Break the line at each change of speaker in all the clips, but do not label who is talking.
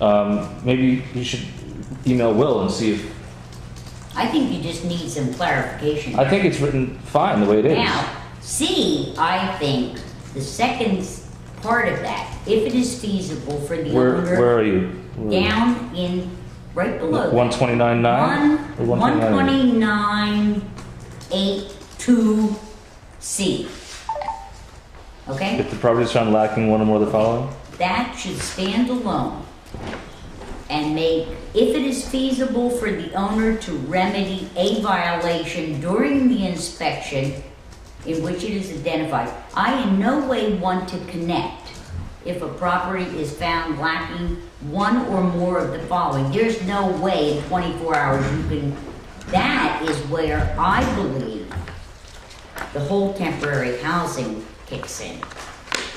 Um, maybe you should email Will and see if,
I think you just need some clarification.
I think it's written fine the way it is.
Now, C, I think, the second s- part of that, if it is feasible for the
Where, where
owner,
are you? Where are you?
down in, right below. that.
129.9? Or
One, one
129.9?
twenty-nine, eight, two, C. Okay,
If the property is found lacking one or more of the following?
that should stand alone and make, if it is feasible for the owner to remedy a violation during the inspection in which it is identified. I in no way want to connect if a property is found lacking one or more of the following. There's no way in twenty-four hours you can, that is where I believe the whole temporary housing kicks in.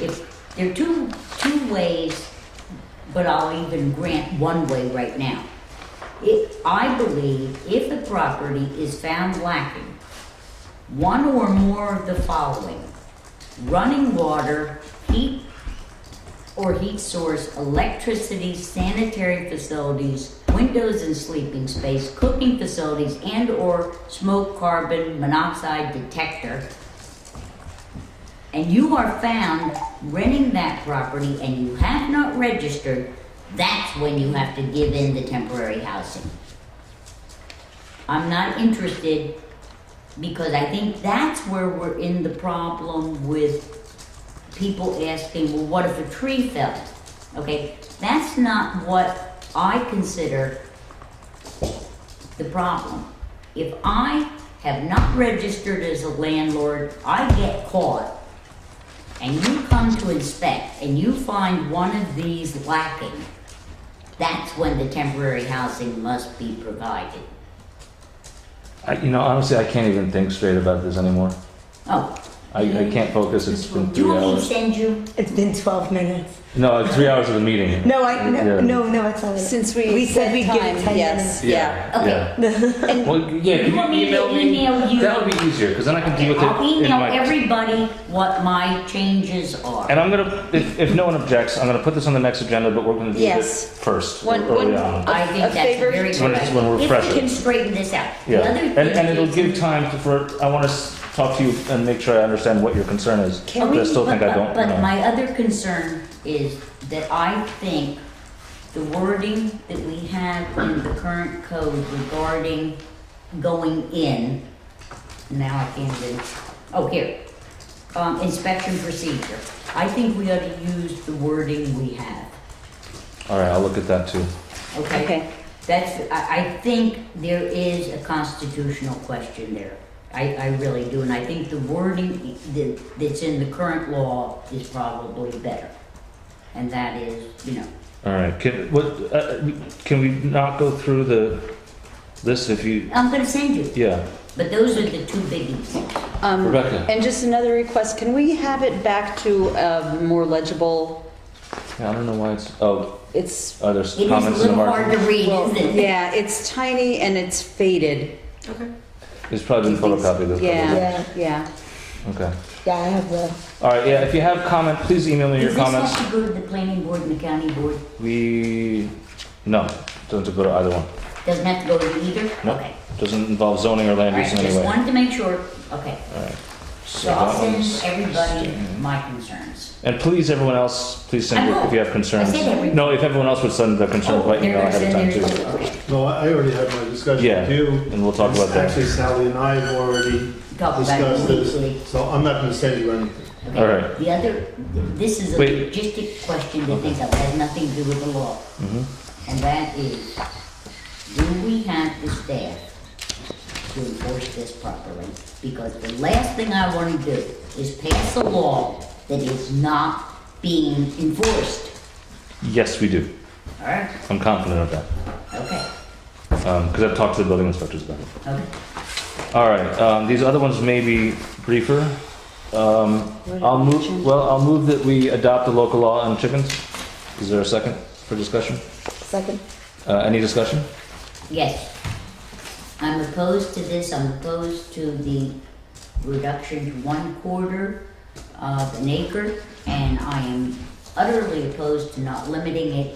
If, there are two, two ways, but I'll even grant one way right now. If, I believe if the property is found lacking one or more of the following. Running water, heat or heat source, electricity, sanitary facilities, windows and sleeping space, cooking facilities, and or smoke carbon monoxide detector. And you are found renting that property and you have not registered, that's when you have to give in the temporary housing. I'm not interested because I think that's where we're in the problem with people asking, well, what if a tree fell? Okay, that's not what I consider the problem. If I have not registered as a landlord, I get caught. And you come to inspect and you find one of these lacking, that's when the temporary housing must be provided.
I, you know, honestly, I can't even think straight about this anymore.
Oh,
I, I can't focus. It's been
do
three
you want me to
hours.
send you?
It's been 12 minutes.
No, it's three hours of the meeting.
No, I no
Yeah.
no, no it's not.
Since we
said
said
we'd give it
time,
10
yes.
Yeah.
Okay.
Yeah.
And-
well, yeah. Can
You want me
you
to
email me?
email you?
That would be easier because then I can deal with
I'll
it in
email
my.
everybody what my changes are.
and I'm gonna, if, if no one objects, I'm gonna put this on the next agenda, but we're gonna do
Yes.
this first
One-
early
one-
on.
I think
A
that's
favor-
very
When it's- when we're
good. If
fresher.
we can straighten this out. The
Yeah,
other
and,
thing
and it'll
is-
give time to, for, I wanna s- talk to you and make sure I understand what your concern is.
Oh,
But I still
but-
think I don't
But but
know.
my other concern is that I think the wording that we have in the current code regarding going in, now I can't even, oh, here, um, inspection procedure. I think we ought to use the wording we have.
Alright, I'll look at that too.
Okay.
Okay.
That's, I, I think there is a constitutional question there. I, I really do, and I think the wording that, that's in the current law is probably better. And that is, you know,
Alright, can, what, uh, uh, can we not go through the list if you,
I'm gonna send you,
yeah,
but those are the two biggies.
Um,
Rebecca.
And just another request, can we have it back to a more legible,
yeah, I don't know why it's, oh,
it's,
are there
It is a
comments in the
little hard to
margin?
read,
well,
isn't it?
yeah, it's tiny and it's faded.
It's probably been photocopied. that's
Yeah,
Yeah.
yeah.
probably- Okay,
Yeah, I have the
alright, yeah, if you have comment, please email me your
Does this
comments.
have to go to the planning board and the county board?
We, no, doesn't have to go to either one.
Doesn't have to go to either?
No,
Okay.
doesn't involve zoning or land
All right,
use in any
just
way.
wanted to make sure, okay.
So
So I'll
that one's-
send everybody my concerns.
And please, everyone else, please send
I
your-
will.
if you have concerns.
I said everyone.
No, if everyone else would send their concerns
Oh,
by email
there
ahead of time
is,
too.
there is, okay.
No, I I already had my discussion
Yeah,
with you.
and we'll talk about that.
Actually, Sally and I have already
Talk about it
discussed
briefly.
this, so I'm not gonna send you anything.
Okay.
All right.
The other, this is a
Wait.
logistic question that thinks of, has nothing to do with the law.
Mm-hmm.
And that is, do we have the staff to enforce this properly? Because the last thing I wanna do is pass a law that is not being enforced.
Yes, we do.
All right,
I'm confident of that.
okay,
Because I've talked to the building inspectors about it.
okay.
All right, um, these other ones may be briefer. Um, I'll move, well, I'll move that we adopt the local law on chickens. Is there a second for discussion?
second.
Uh, any discussion?
Yes. I'm opposed to this, I'm opposed to the reduction to one quarter of an acre, and I am utterly opposed to not limiting it